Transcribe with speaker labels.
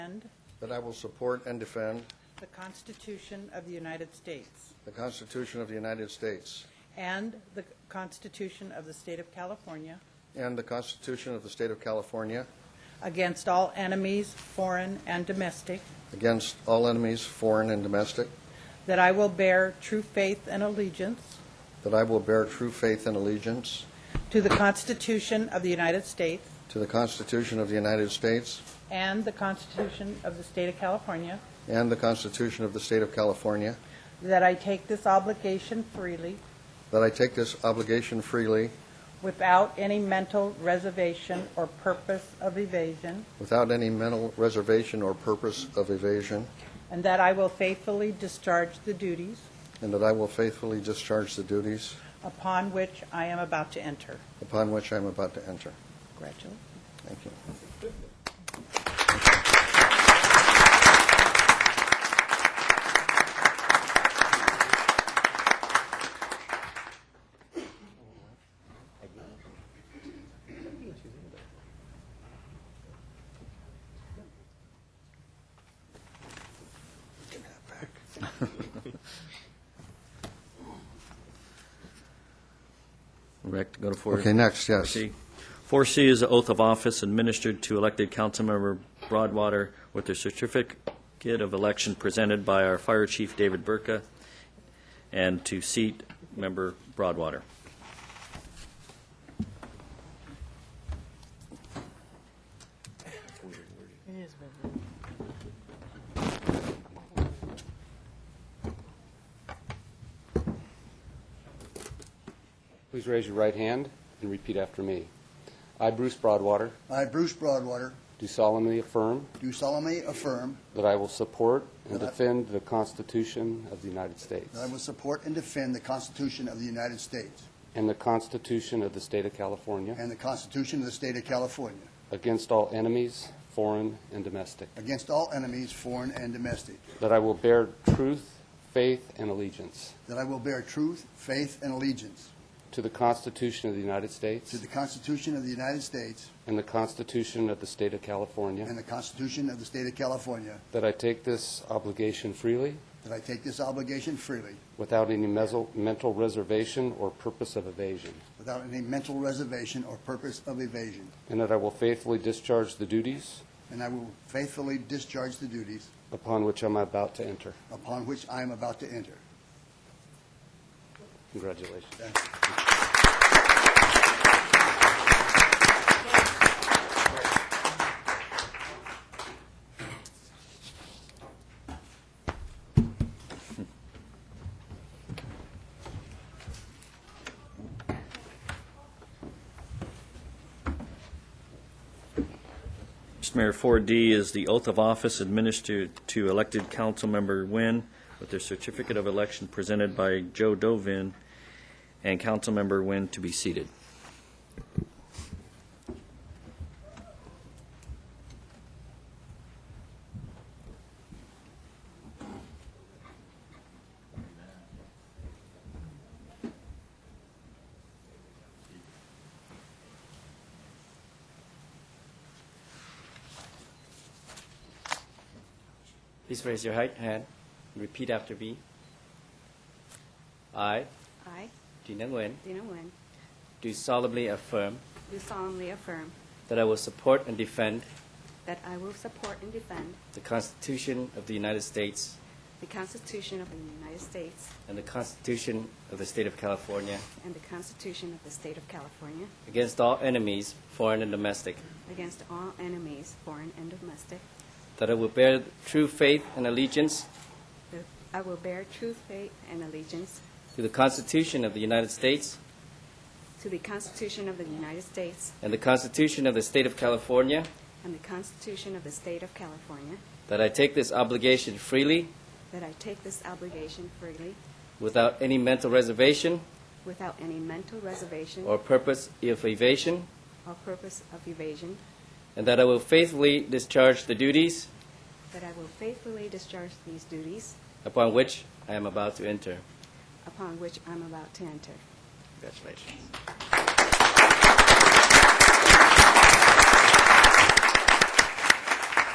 Speaker 1: that I will support and defend
Speaker 2: the Constitution of the United States
Speaker 1: the Constitution of the United States
Speaker 2: and the Constitution of the State of California
Speaker 1: and the Constitution of the State of California
Speaker 2: against all enemies, foreign and domestic,
Speaker 1: against all enemies, foreign and domestic,
Speaker 2: that I will bear true faith and allegiance
Speaker 1: that I will bear true faith and allegiance
Speaker 2: to the Constitution of the United States
Speaker 1: to the Constitution of the United States
Speaker 2: and the Constitution of the State of California,
Speaker 1: and the Constitution of the State of California,
Speaker 2: that I take this obligation freely
Speaker 1: that I take this obligation freely
Speaker 2: without any mental reservation or purpose of evasion,
Speaker 1: without any mental reservation or purpose of evasion,
Speaker 2: and that I will faithfully discharge the duties
Speaker 1: and that I will faithfully discharge the duties
Speaker 2: upon which I am about to enter.
Speaker 1: upon which I am about to enter.
Speaker 2: Congratulations.
Speaker 1: Thank you. Give me that back.
Speaker 3: Correct, go to four.
Speaker 1: Okay, next, yes.
Speaker 3: 4C. 4C is the oath of office administered to elected councilmember Broadwater with their certificate of election presented by our fire chief, David Burka, and to seat member Broadwater.
Speaker 4: Please raise your right hand and repeat after me. I, Bruce Broadwater,
Speaker 5: I, Bruce Broadwater,
Speaker 4: do solemnly affirm
Speaker 5: do solemnly affirm
Speaker 4: that I will support and
Speaker 5: That I-
Speaker 4: defend the Constitution of the United States
Speaker 5: that I will support and defend the Constitution of the United States
Speaker 4: and the Constitution of the State of California
Speaker 5: and the Constitution of the State of California
Speaker 4: against all enemies, foreign and domestic,
Speaker 5: against all enemies, foreign and domestic,
Speaker 4: that I will bear truth, faith, and allegiance
Speaker 5: that I will bear truth, faith, and allegiance
Speaker 4: to the Constitution of the United
Speaker 5: to
Speaker 4: States
Speaker 5: the Constitution of the United States
Speaker 4: and the Constitution of the State of
Speaker 5: and
Speaker 4: California,
Speaker 5: the Constitution of the State of California,
Speaker 4: that I take this obligation freely
Speaker 5: that I take this obligation freely
Speaker 4: without any mesel- mental reservation or purpose of evasion.
Speaker 5: without any mental reservation or purpose of evasion,
Speaker 4: And that I will faithfully discharge the duties
Speaker 5: and I will faithfully discharge the duties
Speaker 4: upon which I'm about to enter.
Speaker 5: upon which I am about to enter.
Speaker 4: Congratulations.
Speaker 3: Mr. Mayor, 4D is the oath of office administered to elected councilmember Nguyen with their certificate of election presented by Joe Dovin, and councilmember Nguyen to be seated.
Speaker 6: Please raise your right hand and repeat after me. I,
Speaker 7: I,
Speaker 6: Tina Nguyen,
Speaker 7: Dina Nguyen,
Speaker 6: do solemnly affirm
Speaker 7: do solemnly affirm
Speaker 6: that I will support and defend
Speaker 7: that I will support and defend
Speaker 6: the Constitution of the United States
Speaker 7: the Constitution of the United States
Speaker 6: and the Constitution of the State of California
Speaker 7: and the Constitution of the State of California
Speaker 6: against all enemies, foreign and domestic,
Speaker 7: against all enemies, foreign and domestic.
Speaker 6: that I will bear true faith and allegiance
Speaker 7: that I will bear true faith and allegiance
Speaker 6: to the Constitution of the United States
Speaker 7: to the Constitution of the United States
Speaker 6: and the Constitution of the State of California,
Speaker 7: and the Constitution of the State of California,
Speaker 6: that I take this obligation freely
Speaker 7: that I take this obligation freely
Speaker 6: without any mental reservation
Speaker 7: without any mental reservation
Speaker 6: or purpose of evasion,
Speaker 7: or purpose of evasion,
Speaker 6: And that I will faithfully discharge the duties
Speaker 7: that I will faithfully discharge these duties
Speaker 6: upon which I am about to enter.
Speaker 7: upon which I'm about to enter.
Speaker 6: Congratulations.